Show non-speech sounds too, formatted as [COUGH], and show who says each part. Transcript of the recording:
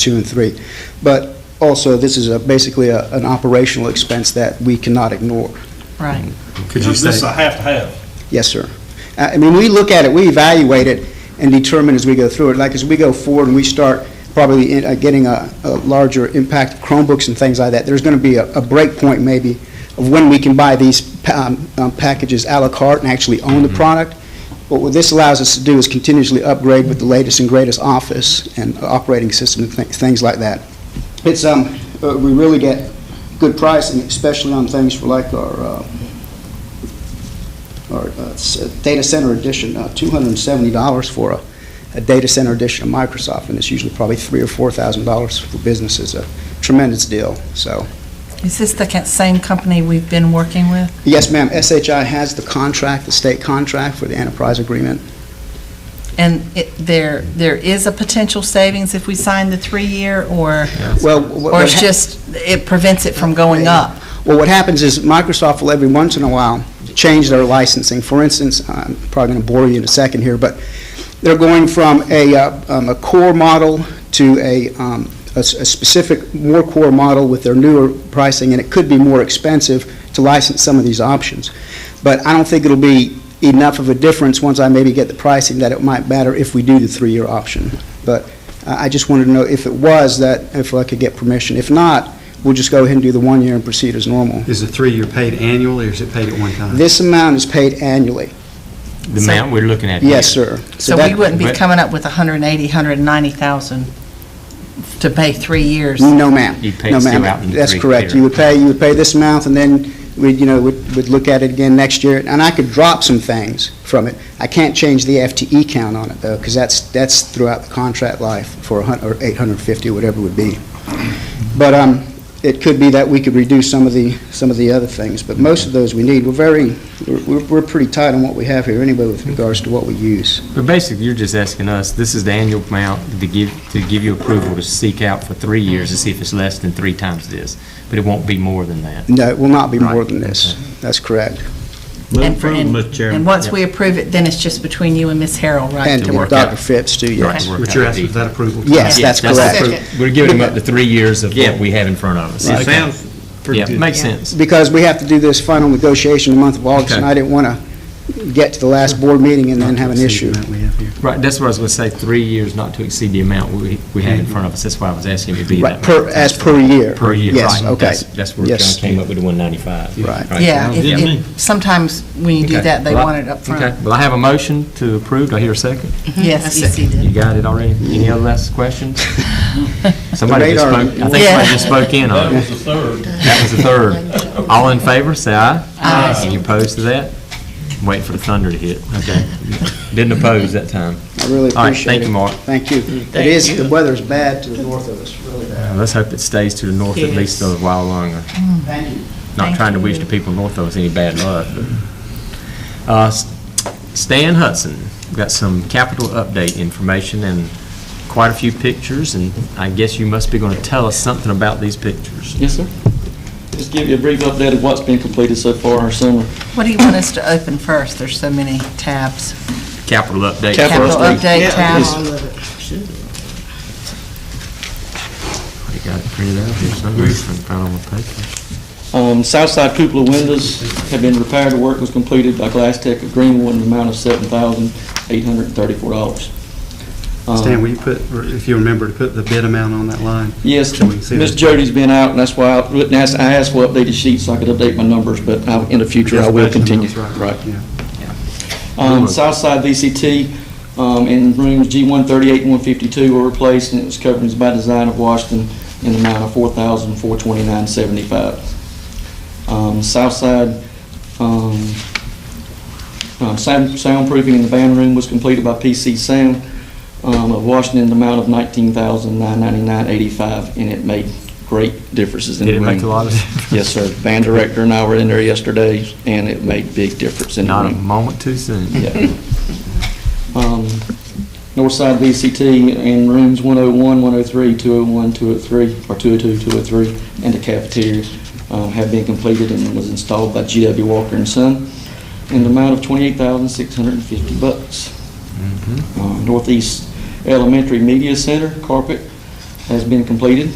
Speaker 1: two and three. But also, this is a- basically a- an operational expense that we cannot ignore.
Speaker 2: Right.
Speaker 3: Could you
Speaker 4: This is a
Speaker 3: say,
Speaker 4: have to have.
Speaker 1: Yes, sir. Uh, I I mean, we look at it, we evaluate it and determine as we go through it. Like, as we go forward and we start probably in- uh, getting a a larger impact of Chromebooks and things like that, there's going to be a a break point maybe of when we can buy these pa- um, um, packages à la carte and actually own the product. But what this allows us to do is continuously upgrade with the latest and greatest office and operating system and thi- things like that. It's, um, uh, we really get good pricing, especially on things for like our uh, or uh, s- data center edition, uh, $270 for a, a data center edition of Microsoft, and it's usually probably three or $4,000 for businesses, a tremendous deal, so.
Speaker 2: Is this the ca- same company we've been working with?
Speaker 1: Yes, ma'am, SHI has the contract, the state contract for the enterprise agreement.
Speaker 2: And it, there, there is a potential savings if we sign the three-year, or,
Speaker 1: Well, wh- what
Speaker 2: or it's
Speaker 1: hap-
Speaker 2: just, it prevents it from going up?
Speaker 1: Well, what happens is Microsoft will every once in a while change their licensing. For instance, uh, I'm probably going to bore you in a second here, but they're going from a, uh, um, a core model to a, um, a s- a specific more core model with their newer pricing, and it could be more expensive to license some of these options. But I don't think it'll be enough of a difference once I maybe get the pricing that it might matter if we do the three-year option. But I I just wanted to know if it was that, if I could get permission. If not, we'll just go ahead and do the one year and proceed as normal.
Speaker 3: is the three-year paid annually, or is it paid at one time?
Speaker 1: This amount is paid annually.
Speaker 5: The amount we're looking at.
Speaker 1: Yes,
Speaker 5: here.
Speaker 1: sir.
Speaker 2: So
Speaker 1: that-
Speaker 2: we wouldn't be
Speaker 5: but-
Speaker 2: coming up with 180, 190,000 to pay three years?
Speaker 1: No, ma'am.
Speaker 5: You'd pay
Speaker 1: No,
Speaker 5: it
Speaker 1: ma'am.
Speaker 5: still out in
Speaker 1: That's
Speaker 5: three
Speaker 1: correct.
Speaker 5: years.
Speaker 1: You would pay, you would pay this amount, and then we'd, you know, would, would look at it again next year. And I could drop some things from it. I can't change the FTE count on it, though, because that's, that's throughout the contract life for a hun, or 850, or whatever it would be. But, um, it could be that we could reduce some of the, some of the other things, but most of those we need. We're very, we're- we're, we're pretty tight on what we have here anyway with regards to what we use.
Speaker 5: But basically, you're just asking us, this is the annual amount to give, to give you approval to seek out for three years to see if it's less than three times this, but it won't be more than that.
Speaker 1: No, it will not be more
Speaker 5: Right,
Speaker 1: than this. That's correct.
Speaker 2: And for- and- And once we approve it, then it's just between you and Ms. Harrell, right?
Speaker 1: And
Speaker 2: to
Speaker 5: to
Speaker 1: and
Speaker 2: work
Speaker 5: work
Speaker 1: Dr.
Speaker 5: out.
Speaker 1: Phipps, too, yes.
Speaker 5: Right, work
Speaker 3: What
Speaker 5: out
Speaker 3: you're
Speaker 5: the
Speaker 3: asking, is
Speaker 5: detail.
Speaker 3: that approval?
Speaker 1: Yes,
Speaker 5: Yeah,
Speaker 1: that's
Speaker 5: that's the
Speaker 1: correct.
Speaker 5: appro- We're giving them up to three years of what we have in front of us.
Speaker 4: It sounds pretty
Speaker 5: Yeah,
Speaker 4: good.
Speaker 5: makes sense.
Speaker 1: Because we have to do this final negotiation in the month of August, and
Speaker 3: Okay.
Speaker 1: I didn't want to get to the last board meeting and then have an issue.
Speaker 5: Right, that's what I was going to say, three years not to exceed the amount we, we have in front of us. That's why I was asking it to be
Speaker 1: Right,
Speaker 5: that.
Speaker 1: per, as per year.
Speaker 5: Per year, right.
Speaker 1: Yes, okay.
Speaker 5: That's- That's where John
Speaker 1: Yes.
Speaker 5: came up with the 195.
Speaker 1: Right.
Speaker 2: Yeah, it-
Speaker 5: Yeah.
Speaker 2: it- sometimes when you do
Speaker 5: Okay.
Speaker 2: that, they
Speaker 5: Well,
Speaker 2: want it up front.
Speaker 5: Okay, well, I have a motion to approve. Do I hear a second?
Speaker 2: Yes.
Speaker 5: You got it already? Any other last questions?
Speaker 2: [LAUGHS]
Speaker 5: Somebody just
Speaker 1: radar.
Speaker 5: spoke, I think
Speaker 2: Yeah.
Speaker 5: somebody just spoke in
Speaker 4: That
Speaker 5: on
Speaker 4: was
Speaker 5: it.
Speaker 4: the third.
Speaker 5: That was the third. All in favor, say aye.
Speaker 2: Uh,
Speaker 5: Aye. Any opposed to that? Wait for the thunder to hit. Okay. Didn't oppose that time.
Speaker 1: I really
Speaker 5: All right,
Speaker 1: appreciate
Speaker 5: thank
Speaker 1: it.
Speaker 5: you, Mark.
Speaker 1: Mm, Thank you. It is, the weather's bad to the north of us, really bad.
Speaker 5: Uh, Let's hope it stays to the north at least a while longer.
Speaker 1: Thank you.
Speaker 5: Not
Speaker 2: Thank
Speaker 5: trying to wish
Speaker 2: you.
Speaker 5: the people north of us any bad luck. but- Uh, S- Stan Hudson, got some capital update information and quite a few pictures, and I guess you must be going to tell us something about these pictures.
Speaker 6: Yes, sir. Just give you a brief update of what's been completed so far in our summer.
Speaker 2: What do you want us to open first? There's so many tabs.
Speaker 5: Capital update.
Speaker 6: Cap-
Speaker 2: Capital
Speaker 6: update.
Speaker 2: update tab.
Speaker 5: You got it printed out here somewhere, if I can find it on my paper.
Speaker 6: Um, south side cupola windows have been repaired. The work was completed by Glass Tech of Greenwood in the amount of seven thousand eight hundred and thirty-four dollars. Um,
Speaker 3: Stan, will you put, or if you remember, to put the bid amount on that line?
Speaker 6: Yes,
Speaker 3: So we can see
Speaker 6: Ms.
Speaker 3: that.
Speaker 6: Jody's been out, and that's why I wouldn't ask- I asked for updated sheets so I could update my numbers, but I- in the future, I will
Speaker 3: Yes, budget
Speaker 6: continue.
Speaker 3: amounts,
Speaker 6: Right.
Speaker 3: Yeah.
Speaker 6: Um, Southside VCT, um, in rooms G138 and 152 were replaced, and it was coverings by design of Washington in the amount of $4,429.75. Um, Southside, um, um, sound- soundproofing in the band room was completed by PC Sound um, of Washington in the amount of $19,999.85, and it made great differences in the
Speaker 5: Did it
Speaker 6: room.
Speaker 5: make a lot of difference?
Speaker 6: Yes, sir. Band director and I were in there yesterday, and it made big difference in the room.
Speaker 5: Not a moment too soon.
Speaker 6: Yeah. [LAUGHS] Um, Northside VCT in rooms 101, 103, 201, 203, or 202, 203, and the cafeteria um, have been completed and was installed by GW Walker and Son in the amount of 28650 bucks. Uh, Northeast Elementary Media Center carpet has been completed.